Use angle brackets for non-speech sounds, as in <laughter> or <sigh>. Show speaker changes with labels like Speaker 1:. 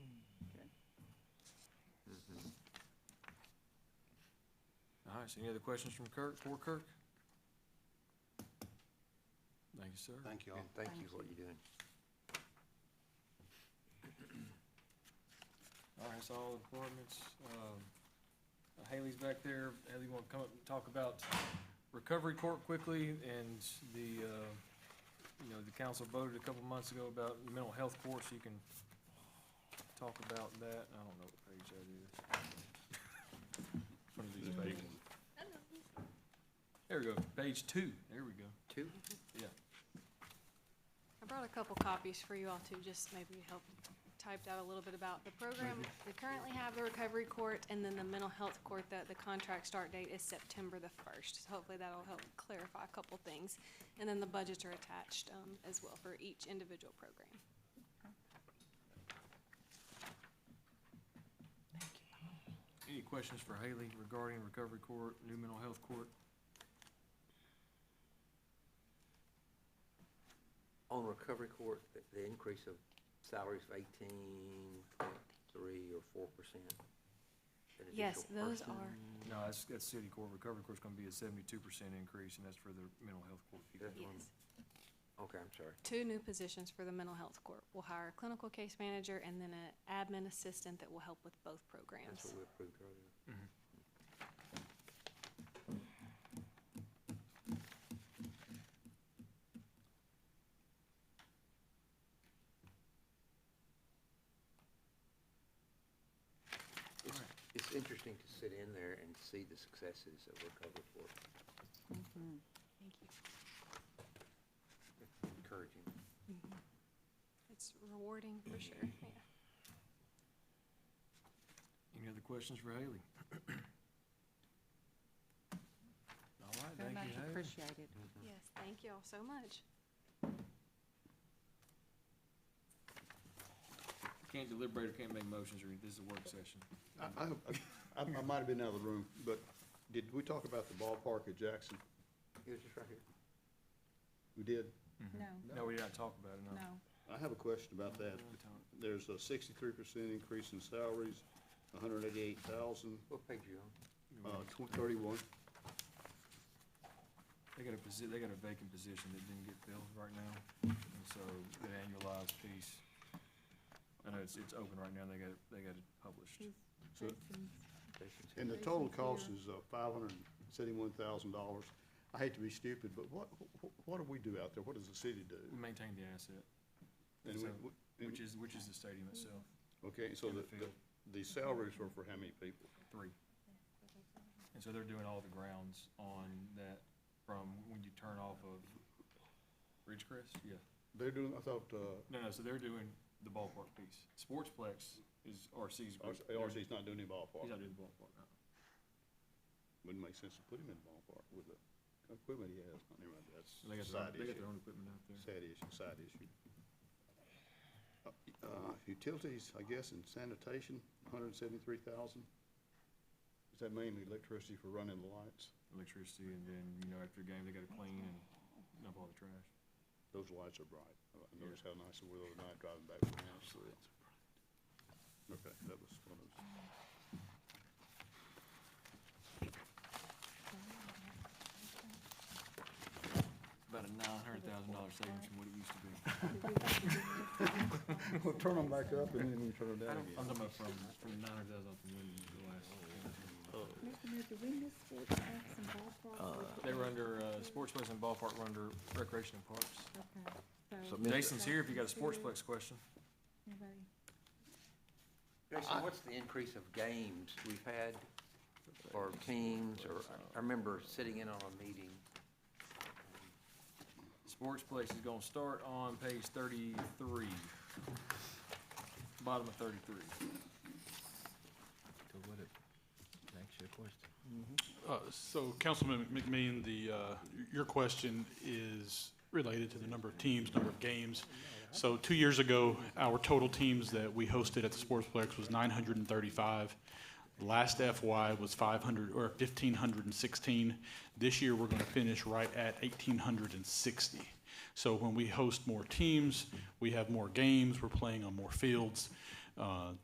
Speaker 1: All right, so any other questions from Kirk, for Kirk? Thank you, sir.
Speaker 2: Thank you all.
Speaker 3: And thank you
Speaker 4: Thank
Speaker 3: for what you're doing.
Speaker 1: All right, so all departments, um, Haley's back there. Haley, you wanna come up and talk about recovery court quickly and the, uh, you know, the council voted a couple months ago about mental health courts. You can talk about that. I don't know what page that is. One of these pages. There we go, page two. There we go.
Speaker 3: Two?
Speaker 4: I brought a couple copies for you all to just maybe help typed out a little bit about the program. We currently have the recovery court and then the mental health court that the contract start date is September the first. So hopefully that'll help clarify a couple things. And then the budgets are attached, um, as well for each individual program.
Speaker 1: Any questions for Haley regarding recovery court, new mental health court?
Speaker 3: On recovery court, the- the increase of salaries of eighteen point three or four percent.
Speaker 4: Yes, those are-
Speaker 1: No, that's, that's city court. Recovery court's gonna be a seventy-two percent increase, and that's for the mental health court people.
Speaker 3: That's one. Okay, I'm sorry.
Speaker 4: Two new positions for the mental health court. We'll hire a clinical case manager and then an admin assistant that will help with both
Speaker 3: That's
Speaker 4: programs.
Speaker 3: what we approved earlier.
Speaker 1: Alright.
Speaker 3: It's interesting to sit in there and see the successes of recovery court.
Speaker 4: Mm-hmm. Thank you.
Speaker 3: Encouraging.
Speaker 4: It's rewarding for sure, yeah.
Speaker 1: Any other questions for Haley? <clears throat> All right,
Speaker 5: Very
Speaker 1: thank
Speaker 5: much
Speaker 1: you, Haley.
Speaker 5: appreciated.
Speaker 4: Yes, thank you all so much.
Speaker 1: Can't deliberate or can't make motions, or this is a work session.
Speaker 6: I, I- I, I might have been out of the room, but did we talk about the ballpark at Jackson?
Speaker 3: It was just right here.
Speaker 6: We did.
Speaker 5: No,
Speaker 1: No, we did not talk about it, no.
Speaker 5: no.
Speaker 6: I have a question about that. There's a sixty-three percent increase in salaries, hundred eighty-eight thousand,
Speaker 3: What page you on?
Speaker 6: uh, tw- thirty-one.
Speaker 1: They got a posi, they got a vacant position that didn't get filled right now, and so the annualized piece, I know it's, it's open right now, they got, it- they got it published.
Speaker 6: So-
Speaker 3: Station's
Speaker 6: And
Speaker 3: here.
Speaker 6: the total cost is, uh, five hundred seventy-one thousand dollars. I hate to be stupid, but what, wh- what do we do out there? What does the city
Speaker 1: We
Speaker 6: do?
Speaker 1: maintained the asset,
Speaker 6: And we-
Speaker 1: So,
Speaker 6: we-
Speaker 1: which is, which is the stadium itself,
Speaker 6: Okay, so
Speaker 1: in the
Speaker 6: the, the-
Speaker 1: field.
Speaker 6: the salaries were for how many people?
Speaker 1: three. And so they're doing all the grounds on that, from when you turn off of Ridgecrest, yeah.
Speaker 6: They're doing, I thought, uh,
Speaker 1: No, no, so they're doing the ballpark piece. Sportsplex is RC's group.
Speaker 6: R-
Speaker 1: They're-
Speaker 6: RC's not doing any
Speaker 1: He's not
Speaker 6: ballpark.
Speaker 1: doing the ballpark, no.
Speaker 6: Wouldn't make sense to put him in the ballpark with the equipment he has. Never mind, that's
Speaker 1: They got their,
Speaker 6: side
Speaker 1: own- they got
Speaker 6: issue.
Speaker 1: their own equipment out there.
Speaker 6: Sad issue, side issue. Uh, uh, Utilities, I guess, and sanitation, hundred and seventy-three thousand. Is that mainly electricity for running the lights?
Speaker 1: Electricity and then, you know, after a game, they gotta clean and dump all the trash.
Speaker 6: Those lights are bright. I- I
Speaker 1: Yeah.
Speaker 6: noticed how nice they were the other night driving back from the house. Okay, that was one of those.
Speaker 1: About a nine hundred thousand dollar savings from what it used to be.
Speaker 6: <laughs> We'll turn them back up and then we turn them down
Speaker 1: I'm talking about from, from nine hundred thousand from when the
Speaker 6: Oh,
Speaker 1: last.
Speaker 5: Mr. Mayor, did we miss sports facts and ballpark?
Speaker 1: They were under, uh, Sportsplex and Ballpark were under Recreation and Parks.
Speaker 5: Okay, so,
Speaker 3: So Mr.
Speaker 1: Jason's here if you got a Sportsplex question.
Speaker 5: anybody?
Speaker 3: Jason, what's the increase of games we've had or teams or, I remember sitting in on a meeting.
Speaker 1: Sportsplex is gonna start on page thirty-three. Bottom of thirty-three.
Speaker 7: So what if- next your question.
Speaker 8: Uh, So Councilman McMean, the, uh, your question is related to the number of teams, number of games. So two years ago, our total teams that we hosted at the Sportsplex was 935. Last FY was 500, or 1,516. This year, we're going to finish right at 1,860. So when we host more teams, we have more games, we're playing on more fields. Uh,